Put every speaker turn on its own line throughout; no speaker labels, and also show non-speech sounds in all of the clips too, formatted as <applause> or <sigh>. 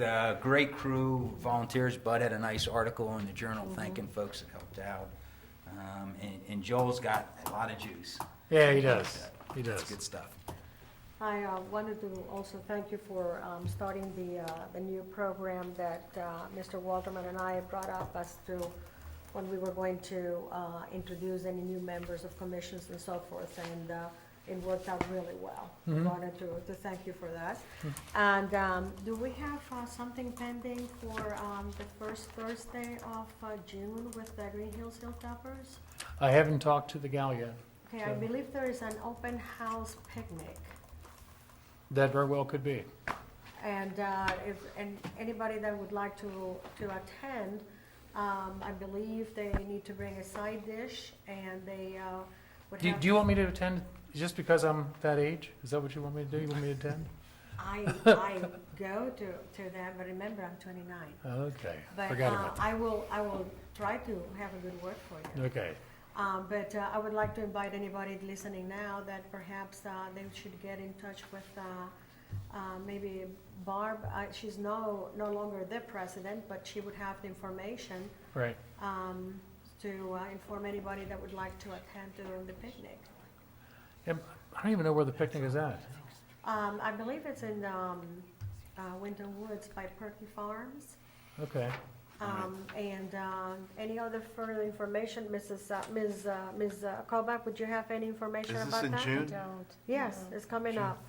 Uh, great crew, volunteers. Bud had a nice article in the journal thanking folks that helped out. Um, and, and Joel's got a lot of juice.
Yeah, he does. He
That's
does.
good stuff.
I uh, wanted to also thank you for um, starting the, uh, the new program that uh, Mr. Walterman and I brought up as to when we were going to uh, introduce any new members of commissions and so forth, and uh, it worked out really well. I Wanted to, to thank you for that. And um, do we have uh, something pending for um, the first Thursday of uh, June with the Green Hills Hilltoppers?
I haven't talked to the gal yet.
Okay, I
So-
believe there is an open house picnic.
That very well could be.
And uh, if, and anybody that would like to, to attend, um, I believe they need to bring a side dish and they uh, would
Do,
have.
do you want me to attend just because I'm that age? Is that what you want me to do? You want me
<laughs>
to attend?
I,
<laughs>
I go to, to them, but remember, I'm twenty-nine.
Okay,
But
forgot
uh,
about
I will, I will try to have a good word for
that.
you.
Okay,
Um, But uh, I would like to invite anybody listening now that perhaps uh, they should get in touch with uh, uh, maybe Barb. Uh, She's no, no longer the president, but she would have the information
right.
um, to uh, inform anybody that would like to attend during the picnic.
And I don't even know where the picnic is at.
Um, I believe it's in um, uh, Winter Woods by Perky Farms.
Okay,
Um, And um, any other further information, Mrs., uh, Ms., uh, Ms. Kobach, would you have any information
Is
about
this
that?
in
I
June?
don't.
Yes,
no.
it's coming
June.
up.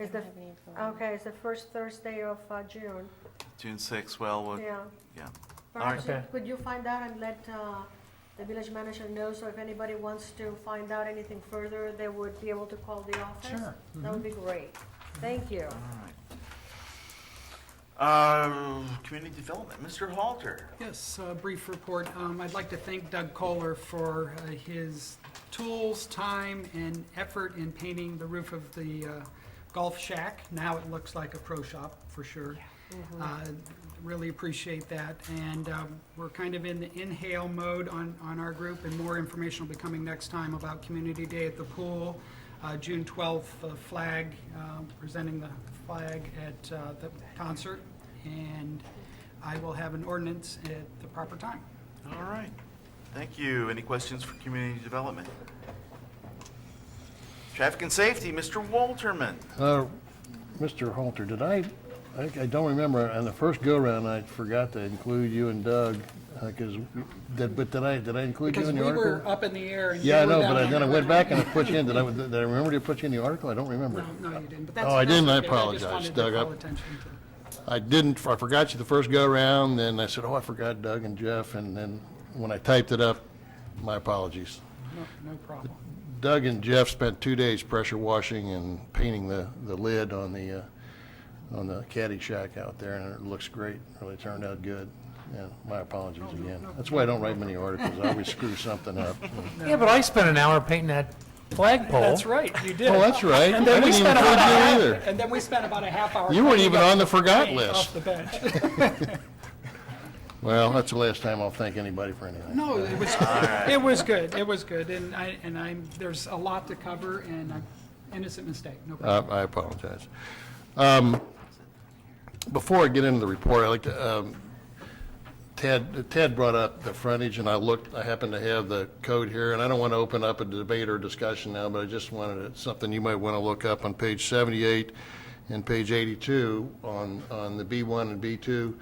I
It's the,
don't have any info on it.
okay, it's the first Thursday of uh, June,
June sixth, well, we'll-
yeah.
yeah.
Perhaps you-
Okay.
could you find out and let uh, the village manager know, so if anybody wants to find out anything further, they would be able to call the office?
Sure.
That would be great. Thank you.
all right. Um, Community Development, Mr. Halter.
Yes, a brief report. Um, I'd like to thank Doug Kohler for uh, his tools, time, and effort in painting the roof of the uh, golf shack. Now it looks like a pro shop, for sure. Uh, Really appreciate that. And um, we're kind of in the inhale mode on, on our group, and more information will be coming next time about Community Day at the pool, uh, June 12th, uh, flag, um, presenting the flag at uh, the concert, and I will have an ordinance at the proper time.
All right. Thank you. Any questions for Community Development? Traffic and Safety, Mr. Walterman.
Uh, Mr. Halter, did I, I I don't remember, on the first go-round, I forgot to include you and Doug, because, but did I, did I include you
Because
in
we
the
were
article?
up in the air and you
Yeah, I
were
know,
down
but I-
on
then I
the
went
ground.
back and I put you in, did I, did I remember to put you in the article? I don't remember.
No, no, you didn't, but that's.
Oh, I
that's
didn't. I
okay.
apologize,
just wanted
Doug.
to
I-
call attention to it.
I didn't, I forgot you the first go-round, then I said, oh, I forgot Doug and Jeff, and then when I typed it up, my apologies.
No- No problem.
Doug and Jeff spent two days pressure washing and painting the, the lid on the, uh, on the caddy shack out there, and it looks great. Really turned out good. Yeah, my apologies again. That's why I don't write many articles. I always screw something up.
Yeah, but I spent an hour painting that flagpole.
That's right, you did.
<laughs> Oh, that's right. I didn't even include you either.
And then we spent about a half hour.
You weren't
cleaning
even
up
on the forgot
paint Off
list.
the bench. <laughs>
Well, that's the last time I'll thank anybody for anything.
No, it was, it was good, it was good, and I, and I'm, there's a lot to cover, and I'm innocent mistake, no problem.
Uh, I apologize. Um, Before I get into the report, I'd like to, um, Ted, Ted brought up the frontage, and I looked, I happen to have the code here, and I don't want to open up a debate or discussion now, but I just wanted, to- something you might want to look up on page 78 and page 82 on, on the B1 and B2,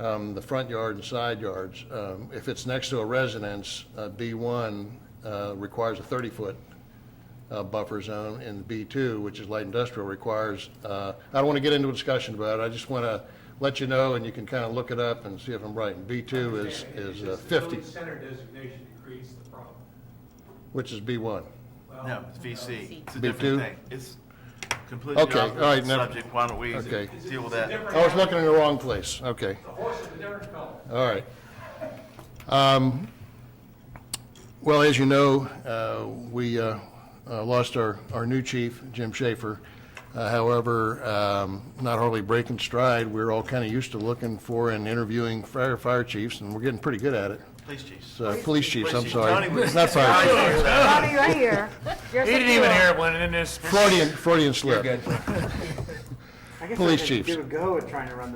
um, the front yard and side yards. Um, If it's next to a residence, uh, B1 uh, requires a 30-foot uh, buffer zone, and B2, which is light industrial, requires, uh, I don't want to get into a discussion about it, I just want to let you know, and you can kind of look it up and see if I'm right. And B2 is, is uh,
It's just the
50,
village center designation that creates the problem.
which is B1.
Well,
No, it's VC. It's a
Me
different
too?
thing. It's completely
Okay, all right,
opposite
never-
subject. Why don't we
Okay.
deal with
it's
that?
a
I
different
was
animal.
looking in the wrong place, okay,
The horse is a different color.
all right. Um, Well, as you know, uh, we uh, uh, lost our, our new chief, Jim Schaefer. Uh, However, um, not hardly breaking stride, we're all kind of used to looking for and interviewing fire, fire chiefs, and we're getting pretty good at it.
Police chiefs.
So, police chiefs, I'm
Police chief.
sorry.
Johnny was-
Not fire chief.
Bobby, right here. He
He didn't even hear it when, and then this
Freudian, Freudian slip. Police chiefs.
give a go at trying to run